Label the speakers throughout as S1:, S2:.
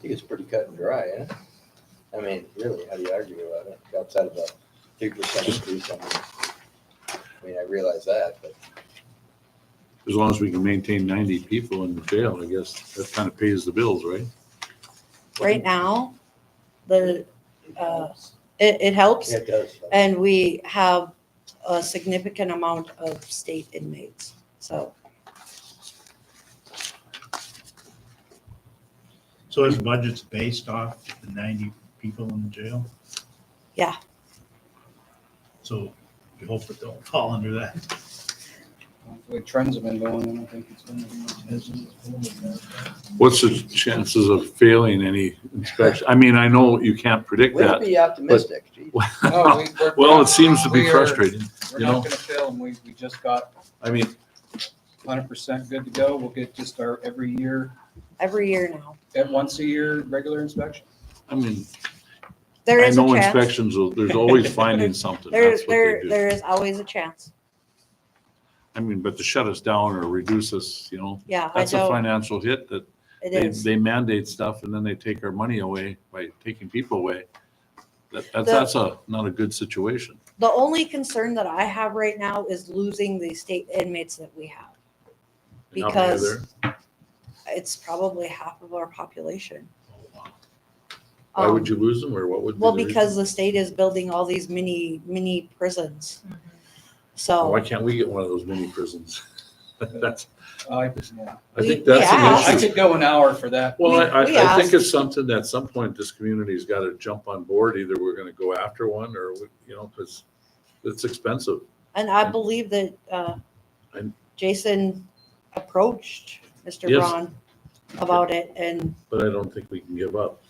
S1: think it's pretty cut and dry, eh? I mean, really, how do you argue about it outside of a three percent increase? I mean, I mean, I realize that, but
S2: As long as we can maintain ninety people in the jail, I guess that kind of pays the bills, right?
S3: Right now, the, uh, it, it helps
S1: yeah, it does.
S3: and we have a significant amount of state inmates. So
S4: So his budget's based off the ninety people in the jail?
S3: Yeah.
S4: So we hope it don't fall under that.
S5: The way trends have been going, I don't think it's gonna be much business.
S2: What's the chances of failing any inspection? I mean, I know you can't predict
S1: We'll
S2: that.
S1: be optimistic. Gee,
S5: No, we- we're-
S2: Well, it seems to be
S5: we are-
S2: frustrating.
S5: We're
S2: you know?
S5: not gonna fail, and we, we just got
S2: I mean,
S5: hundred percent good to go. We'll get just our every year,
S3: every year now,
S5: at once a year, regular inspection.
S2: I mean,
S3: there
S2: I
S3: is a
S2: know
S3: chance.
S2: inspections, will- there's always finding something.
S3: There,
S2: That's what they
S3: there,
S2: do.
S3: there is always a chance.
S2: I mean, but to shut us down or reduce us, you know,
S3: Yeah, I
S2: that's a
S3: know,
S2: financial hit that
S3: it
S2: they,
S3: is.
S2: they mandate stuff and then they take our money away by taking people away. That, that's,
S3: The-
S2: that's a, not a good situation.
S3: The only concern that I have right now is losing the state inmates that we have.
S2: And how many are
S3: Because-
S2: there?
S3: It's probably half of our population.
S2: Why
S3: Um,
S2: would you lose them or what would? be
S3: Well,
S2: the reason?
S3: because the state is building all these mini, mini prisons.
S2: Why
S3: So,
S2: can't we get one of those mini prisons? That's,
S5: I, yeah.
S2: I
S3: We-
S2: think that's
S3: yeah.
S2: an
S5: I
S2: issue.
S5: could go an hour for that.
S2: Well, I,
S3: We- we
S2: I, I think it's something that at some point this community's got to jump on board. Either we're going to go after one or, we- you know, because it's expensive.
S3: and I believe that, uh,
S2: I'm-
S3: Jason approached Mr.
S2: Yes.
S3: Braun about it and
S2: But I don't think we can give up.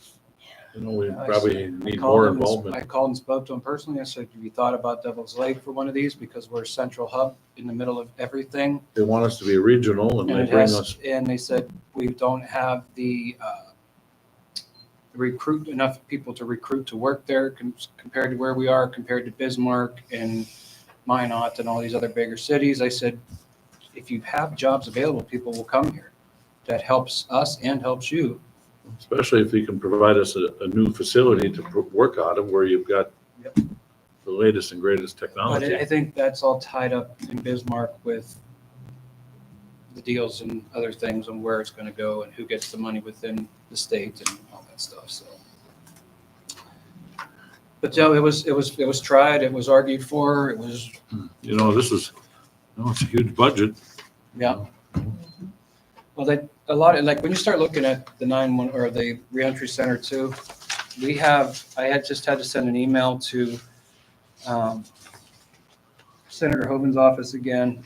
S2: You know, we
S5: I
S2: probably need
S5: called
S2: more
S5: him and- I
S2: involvement.
S5: called and spoke to him personally. I said, have you thought about Devil's Lake for one of these? Because we're a central hub in the middle of everything.
S2: They want us to be regional and
S5: And
S2: they
S5: it
S2: bring
S5: has-
S2: us,
S5: and they said, we don't have the, uh, recruit enough people to recruit to work there com- compared to where we are, compared to Bismarck and Minot and all these other bigger cities. I said, if you have jobs available, people will come here. That helps us and helps you.
S2: especially if you can provide us a, a new facility to pr- work out of where you've got
S5: Yep.
S2: the latest and greatest
S5: But I I
S2: technology.
S5: think that's all tied up in Bismarck with the deals and other things and where it's going to go and who gets the money within the state and all that stuff, so. But no, it was, it was, it was tried, it was argued for, it was,
S2: You know, this is, no, it's a huge budget.
S5: yeah. Well, that, a lot, of like, when you start looking at the nine one, or the reentry center too, we have, I had just had to send an email to um, Senator Hoven's office again.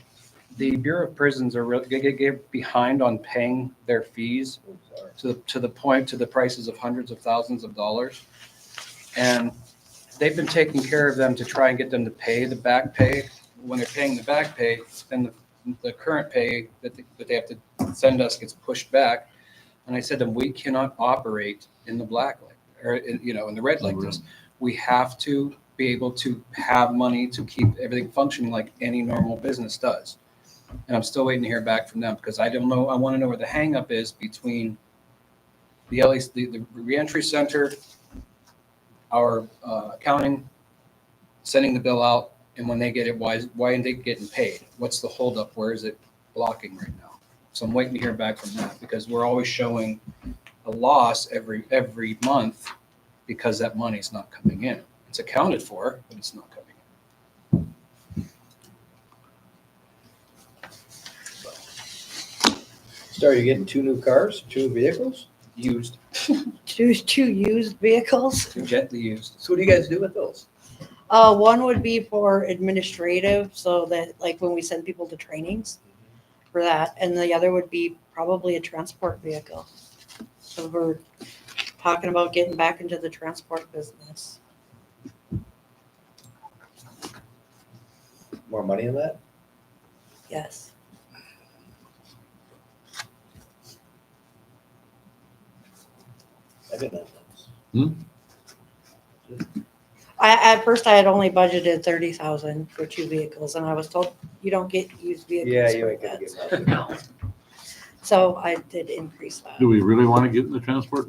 S5: The Bureau of Prisons are really, they get- get behind on paying their fees
S1: I'm sorry.
S5: to, to the point, to the prices of hundreds of thousands of dollars. And they've been taking care of them to try and get them to pay the back pay. When they're paying the back pay, then the, the current pay that, they- that they have to send us gets pushed back. And I said to them, we cannot operate in the black, like- or, in- you know, in the red like this. We have to be able to have money to keep everything functioning like any normal business does. And I'm still waiting to hear back from them because I don't know, I want to know where the hangup is between the LA, the, the reentry center, our uh, accounting, sending the bill out, and when they get it, why, is- why aren't they getting paid? What's the holdup? Where is it blocking right now? So I'm waiting to hear back from that because we're always showing a loss every, every month because that money's not coming in. It's accounted for, but it's not coming in.
S1: Star, you're getting two new cars, two vehicles?
S5: Used,
S3: two, two used vehicles.
S5: gently used.
S1: So what do you guys do with those?
S3: Uh, one would be for administrative, so that like when we send people to trainings
S2: Mm-hmm.
S3: for that, and the other would be probably a transport vehicle. So we're talking about getting back into the transport business.
S1: More money in that?
S3: Yes.
S1: I didn't know.
S2: Hmm?
S3: I, at first I had only budgeted thirty thousand for two vehicles, and I was told you don't get used vehicles.
S1: Yeah, you
S3: for
S1: ain't gonna
S3: that."
S1: get nothing.
S3: So I did increase that.
S2: Do we really want to get in the transport